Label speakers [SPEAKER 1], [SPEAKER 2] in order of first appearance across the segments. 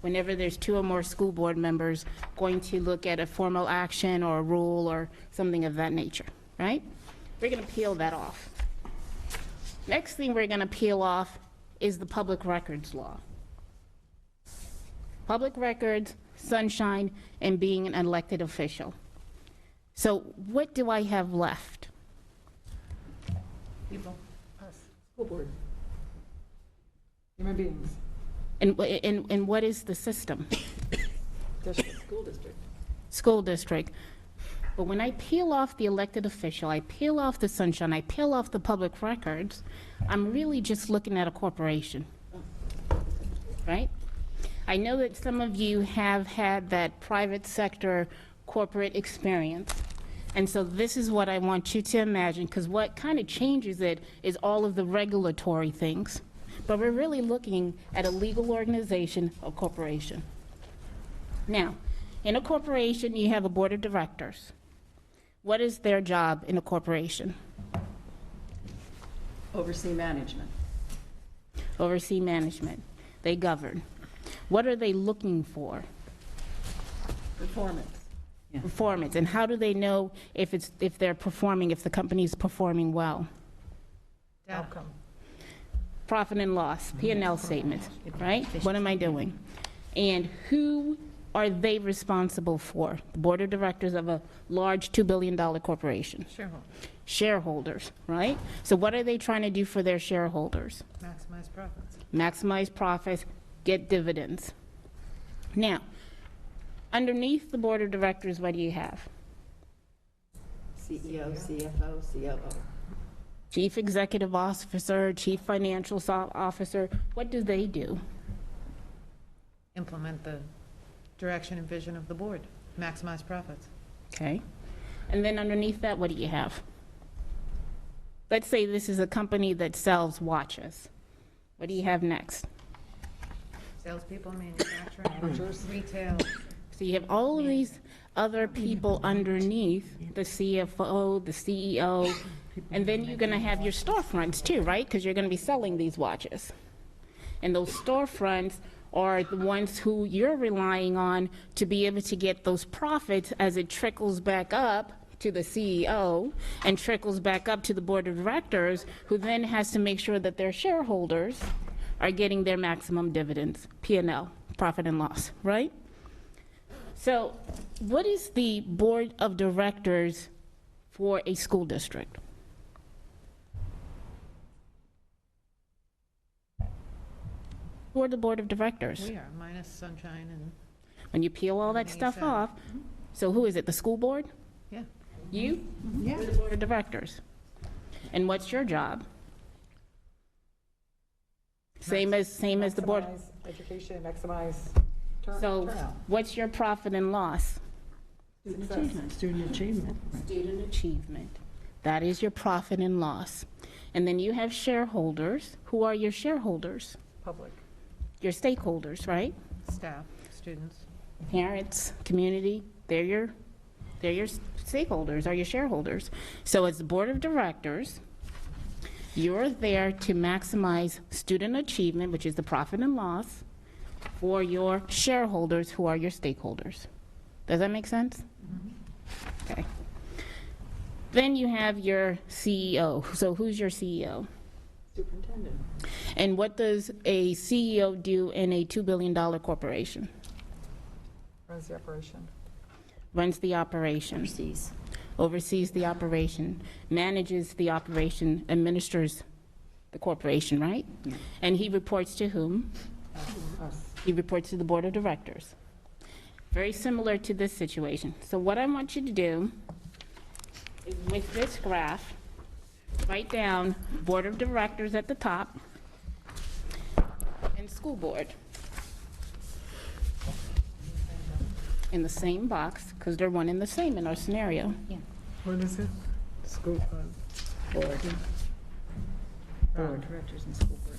[SPEAKER 1] whenever there's two or more school board members going to look at a formal action or a rule or something of that nature, right? We're going to peel that off. Next thing we're going to peel off is the public records law. Public records, sunshine, and being an elected official. So what do I have left?
[SPEAKER 2] People. Us. School board. Human beings.
[SPEAKER 1] And, wh- and, and what is the system?
[SPEAKER 2] District, school district.
[SPEAKER 1] School district. But when I peel off the elected official, I peel off the sunshine, I peel off the public records, I'm really just looking at a corporation. Right? I know that some of you have had that private sector corporate experience. And so this is what I want you to imagine, because what kind of changes it is all of the regulatory things. But we're really looking at a legal organization, a corporation. Now, in a corporation, you have a board of directors. What is their job in a corporation?
[SPEAKER 2] Oversee management.
[SPEAKER 1] Oversee management. They govern. What are they looking for?
[SPEAKER 2] Performance.
[SPEAKER 1] Performance. And how do they know if it's, if they're performing, if the company is performing well?
[SPEAKER 2] Outcome.
[SPEAKER 1] Profit and loss, P and L statements, right? What am I doing? And who are they responsible for? The board of directors of a large $2 billion corporation?
[SPEAKER 3] Shareholder,
[SPEAKER 1] Shareholders, right? So what are they trying to do for their shareholders?
[SPEAKER 3] maximize profits.
[SPEAKER 1] maximize profits, get dividends. Now, underneath the board of directors, what do you have?
[SPEAKER 2] CEO, CFO, COO.
[SPEAKER 1] Chief executive officer, chief financial so- officer, what do they do?
[SPEAKER 3] Implement the direction and vision of the board, maximize profits.
[SPEAKER 1] Okay? And then underneath that, what do you have? Let's say this is a company that sells watches. What do you have next?
[SPEAKER 3] Salespeople, manufacturing, retail.
[SPEAKER 1] So you have all of these other people underneath, the CFO, the CEO, and then you're gonna have your storefronts too, right? Because you're gonna be selling these watches. And those storefronts are the ones who you're relying on to be able to get those profits as it trickles back up to the CEO and trickles back up to the board of directors, who then has to make sure that their shareholders are getting their maximum dividends, P and L, profit and loss, right? So what is the board of directors for a school district? Who are the board of directors?
[SPEAKER 3] We are minus sunshine and,
[SPEAKER 1] When you peel all that
[SPEAKER 3] Everything
[SPEAKER 1] stuff
[SPEAKER 3] you said.
[SPEAKER 1] off, so who is it, the school board?
[SPEAKER 3] yeah,
[SPEAKER 1] You? You're the board of directors. And what's your job? Same as, same as the board.
[SPEAKER 2] Maximize Education, maximize turn-
[SPEAKER 1] So
[SPEAKER 2] turnout.
[SPEAKER 1] what's your profit and loss?
[SPEAKER 2] Success.
[SPEAKER 4] Student achievement.
[SPEAKER 1] Student achievement. That is your profit and loss. And then you have shareholders. Who are your shareholders?
[SPEAKER 2] Public.
[SPEAKER 1] Your stakeholders, right?
[SPEAKER 3] staff, students.
[SPEAKER 1] Parents, community, they're your, they're your stakeholders, are your shareholders. So as the board of directors, you're there to maximize student achievement, which is the profit and loss, for your shareholders who are your stakeholders. Does that make sense? Okay. Then you have your CEO. So who's your CEO?
[SPEAKER 2] Superintendent.
[SPEAKER 1] And what does a CEO do in a $2 billion corporation?
[SPEAKER 2] Runs the operation.
[SPEAKER 1] Runs the operation,
[SPEAKER 5] overseas.
[SPEAKER 1] oversees the operation, manages the operation, administers the corporation, right? And he reports to whom?
[SPEAKER 2] Us.
[SPEAKER 1] He reports to the board of directors. Very similar to this situation. So what I want you to do is with this graph, write down board of directors at the top and school board in the same box, because they're one and the same in our scenario.
[SPEAKER 4] What is it? School, uh, board. Board.
[SPEAKER 5] Directors and school board.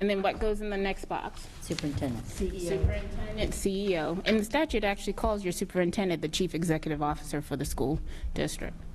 [SPEAKER 1] And then what goes in the next box?
[SPEAKER 5] Superintendent.
[SPEAKER 1] Superintendent, E CEO. And the statute actually calls your superintendent the chief executive officer for the school district.